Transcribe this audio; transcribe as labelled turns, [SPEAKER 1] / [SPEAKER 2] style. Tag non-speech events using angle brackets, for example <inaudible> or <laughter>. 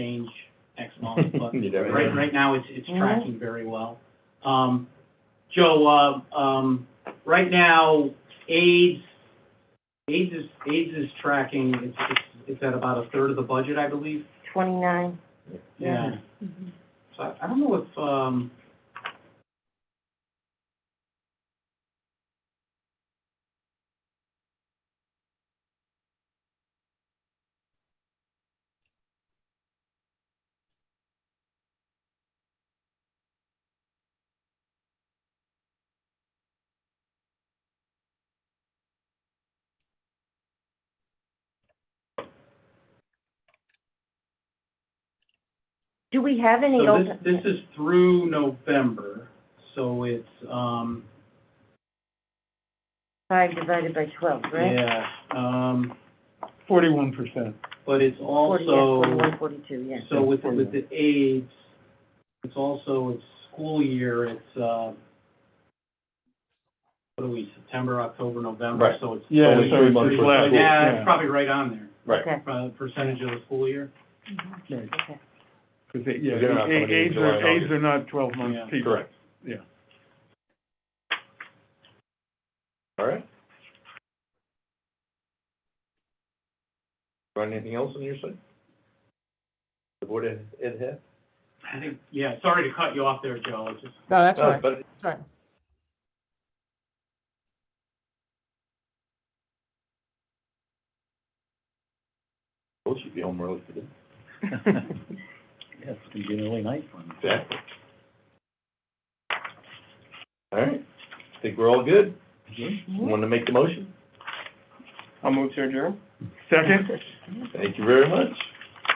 [SPEAKER 1] change
[SPEAKER 2] <laughs>
[SPEAKER 1] X amount, but
[SPEAKER 2] You never
[SPEAKER 1] right,
[SPEAKER 2] know.
[SPEAKER 1] right now, it's, it's
[SPEAKER 3] Mhm.
[SPEAKER 1] tracking very well. Um, Joe, uh, um, right now, AIDS, AIDS is, AIDS is tracking, it's, it's, it's at about a third of the budget, I believe.
[SPEAKER 3] Twenty-nine. Yeah.
[SPEAKER 1] So I, I don't know if, um,
[SPEAKER 3] Do we have any
[SPEAKER 1] So
[SPEAKER 3] open?
[SPEAKER 1] this, this is through November, so it's, um,
[SPEAKER 3] Five divided by twelve, right?
[SPEAKER 1] yeah, um,
[SPEAKER 4] Forty-one percent.
[SPEAKER 1] but it's
[SPEAKER 3] Forty, yeah,
[SPEAKER 1] also,
[SPEAKER 3] Forty-one, forty-two, yeah.
[SPEAKER 1] so with, with the AIDS, it's also, it's school year, it's, uh, what are we, September, October, November,
[SPEAKER 2] Right.
[SPEAKER 1] so it's.
[SPEAKER 4] Yeah,
[SPEAKER 2] Only
[SPEAKER 4] so
[SPEAKER 2] three
[SPEAKER 4] it's
[SPEAKER 2] months
[SPEAKER 4] pretty
[SPEAKER 2] worth of
[SPEAKER 4] flat.
[SPEAKER 2] school.
[SPEAKER 1] Yeah,
[SPEAKER 4] Yeah.
[SPEAKER 1] it's probably right on there,
[SPEAKER 2] Right.
[SPEAKER 3] Okay,
[SPEAKER 1] uh, percentage of the school year.
[SPEAKER 4] Right,
[SPEAKER 3] okay.
[SPEAKER 4] 'cause they- yeah,
[SPEAKER 2] They're not coming in
[SPEAKER 4] A- AIDS
[SPEAKER 2] July and
[SPEAKER 4] are, AIDS
[SPEAKER 2] August.
[SPEAKER 4] are not twelve-month
[SPEAKER 1] Yeah.
[SPEAKER 4] people.
[SPEAKER 2] Correct.
[SPEAKER 4] Yeah.
[SPEAKER 2] All right. Got anything else on your side? The board ed, ed head?
[SPEAKER 1] I think, yeah, sorry to cut you off there, Joe, it's just,
[SPEAKER 5] No, that's
[SPEAKER 2] No,
[SPEAKER 5] right,
[SPEAKER 2] But
[SPEAKER 5] that's right.
[SPEAKER 2] both should be home early today.
[SPEAKER 6] Yes, it's gonna be an early night for me.
[SPEAKER 2] Exactly. All right, think we're all good.
[SPEAKER 5] Mm-hmm.
[SPEAKER 2] Want to make the motion?
[SPEAKER 4] I'll move to adjourn. Second?
[SPEAKER 2] Thank you very much.